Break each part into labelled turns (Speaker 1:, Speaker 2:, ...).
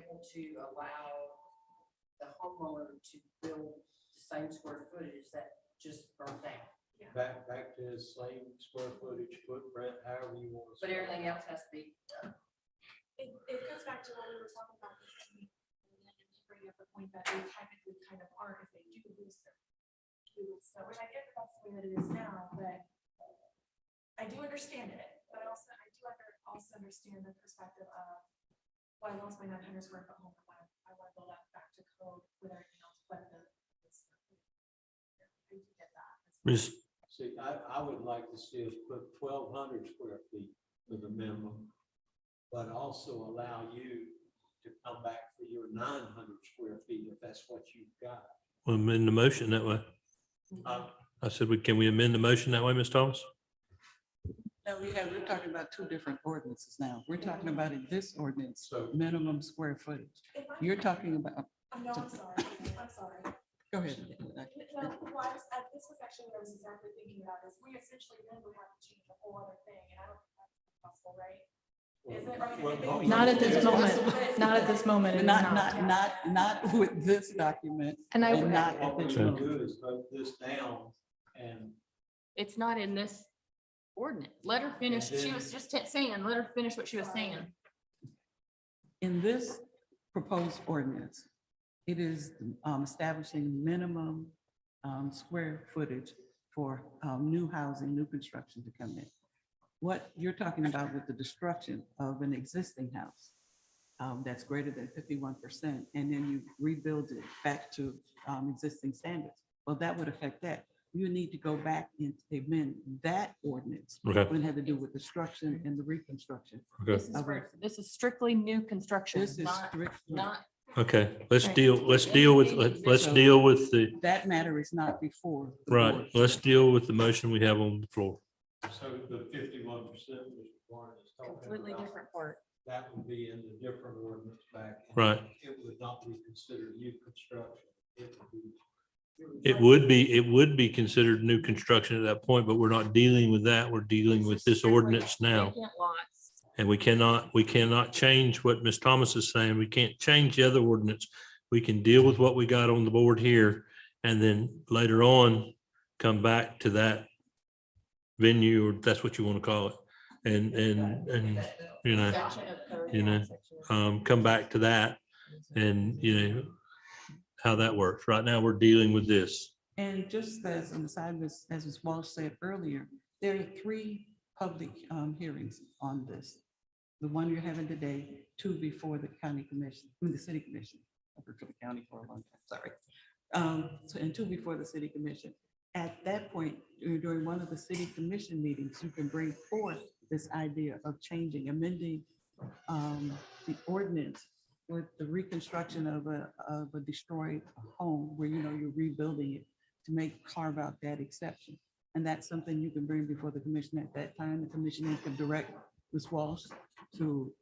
Speaker 1: to allow the homeowner to build the same square footage that just burnt down.
Speaker 2: Back, back to the same square footage footprint, however you want to.
Speaker 1: But everything else has to be,
Speaker 3: It, it goes back to what we were talking about. this morning, and to Bring up the point that they technically kind of are if they do lose their. do lose their- Which I get that that's the way that it is now, but I do understand it, but also I do under, also understand the perspective of. Well, I lost my nine hundred square foot home, I want, I want to go back back to code with everything else, but the. I do get that.
Speaker 4: Ms.
Speaker 2: See, I, I would like to see us put twelve hundred square feet for the minimum, but also allow you to come back for your nine hundred square feet if that's what you've got.
Speaker 4: will amend the motion that way.
Speaker 2: Uh,
Speaker 4: I said, we can we amend the motion that way, Ms. Thomas?
Speaker 5: No, we have, we're talking about two different ordinances now. We're talking about in this ordinance,
Speaker 2: So,
Speaker 5: minimum square footage.
Speaker 3: If I-
Speaker 5: You're talking about,
Speaker 3: I know, I'm sorry, I'm sorry.
Speaker 5: go ahead.
Speaker 3: No, well, I was, I- this was actually what I was exactly thinking about, is we essentially then would have to change a whole other thing, and I don't think that's possible, right? Is it- are you-
Speaker 2: Well,
Speaker 6: Not at
Speaker 2: Yeah.
Speaker 6: this moment, not at this moment, it
Speaker 5: But
Speaker 6: is
Speaker 5: Not,
Speaker 6: not.
Speaker 5: not, not, not with this document.
Speaker 6: And I,
Speaker 5: And
Speaker 6: would-
Speaker 5: not-
Speaker 2: what we can do is vote this down and
Speaker 7: It's not in this ordinance. Let her finish. She was just t- saying, let her finish what she was saying.
Speaker 5: In this proposed ordinance, it is um, establishing minimum um, square footage for um, new housing, new construction to come in. What you're talking about with the destruction of an existing house um, that's greater than fifty-one percent, and then you rebuild it back to um, existing standards. Well, that would affect that. You need to go back and amend that ordinance.
Speaker 4: Okay.
Speaker 5: When it had to do with destruction and the reconstruction.
Speaker 7: This is,
Speaker 5: Okay.
Speaker 7: for- this is strictly new construction,
Speaker 5: This is
Speaker 7: not,
Speaker 5: strictly.
Speaker 7: not.
Speaker 4: Okay, let's
Speaker 7: Right.
Speaker 4: deal, let's deal with, let- let's deal with the,
Speaker 5: that matter is not before. the
Speaker 4: right,
Speaker 5: board.
Speaker 4: let's deal with the motion we have on the floor.
Speaker 2: so the fifty-one percent Mr. Warren is talking about.
Speaker 7: Completely different part.
Speaker 2: That would be in the different ordinance back.
Speaker 4: Right.
Speaker 2: It would not be considered new construction. It would be.
Speaker 4: It would be, it would be considered new construction at that point, but we're not dealing with that. We're dealing with this ordinance now.
Speaker 7: Vacant lots.
Speaker 4: And we cannot, we cannot change what Ms. Thomas is saying. We can't change the other ordinance. We can deal with what we got on the board here and then later on come back to that venue, or if that's what you want to call it. And, and, and, you know,
Speaker 7: Section of code,
Speaker 4: You
Speaker 7: not
Speaker 4: know,
Speaker 7: section of-
Speaker 4: um, come back to that and, you know, how that works. Right now, we're dealing with this.
Speaker 5: And just as an aside, as, as Ms. Walsh said earlier, there are three public um, hearings on this. The one you're having today, two before the county commission, I mean, the city commission. I've worked for the county for a long time, sorry. Um, so- and two before the city commission. At that point, dur- during one of the city commission meetings, you can bring forth this idea of changing, amending um, the ordinance with the reconstruction of a, of a destroyed home where, you know, you're rebuilding it to make, carve out that exception. And that's something you can bring before the commission at that time. The commission then can direct Ms. Walsh to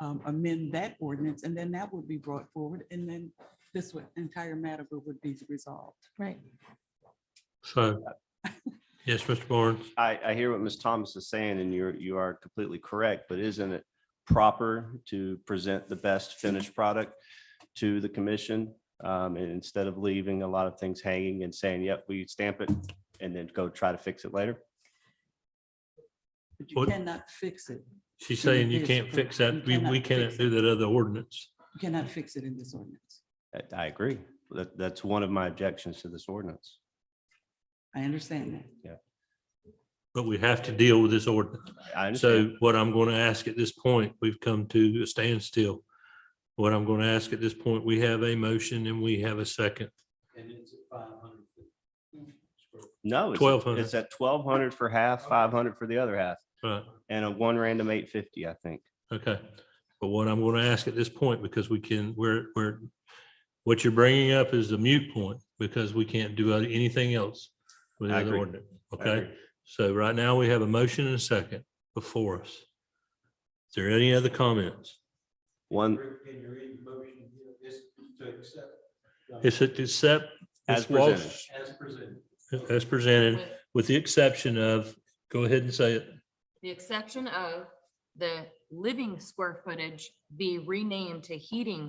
Speaker 5: um, amend that ordinance, and then that would be brought forward, and then this would- entire matter would would be resolved.
Speaker 7: Right.
Speaker 4: So, yes, Mr. Barnes.
Speaker 8: I, I hear what Ms. Thomas is saying and you're, you are completely correct, but isn't it proper to present the best finished product to the commission? Um, and instead of leaving a lot of things hanging and saying, yep, we stamp it and then go try to fix it later?
Speaker 5: But you
Speaker 4: What-
Speaker 5: cannot fix it.
Speaker 4: She's saying you can't fix that. We, we cannot do that other ordinance.
Speaker 5: You cannot fix it in this ordinance.
Speaker 8: I, I agree. That, that's one of my objections to this ordinance.
Speaker 5: I understand that.
Speaker 4: But we have to deal with this ordinance.
Speaker 8: I
Speaker 4: So
Speaker 8: understand.
Speaker 4: what I'm going to ask at this point, we've come to a standstill. What I'm going to ask at this point, we have a motion and we have a second.
Speaker 2: And it's at five hundred feet.
Speaker 8: No, it's,
Speaker 4: 1200.
Speaker 8: it's at twelve hundred for half, five hundred for the other half
Speaker 4: Right,
Speaker 8: and a one random eight fifty, I think.
Speaker 4: okay. But what I'm going to ask at this point, because we can, we're, we're, what you're bringing up is a mute point because we can't do anything else with the
Speaker 8: I
Speaker 4: other
Speaker 8: agree.
Speaker 4: ordinance.
Speaker 8: I
Speaker 4: Okay?
Speaker 8: agree.
Speaker 4: So right now we have a motion and a second before us. Is there any other comments?
Speaker 8: One,
Speaker 2: Can you read the motion here? It's to accept. uh,
Speaker 4: It's it to accept
Speaker 8: As
Speaker 4: Ms. Walsh
Speaker 2: As presented.
Speaker 4: as presented, with the exception of, go ahead and say it,
Speaker 7: The exception of the living square footage be renamed to heating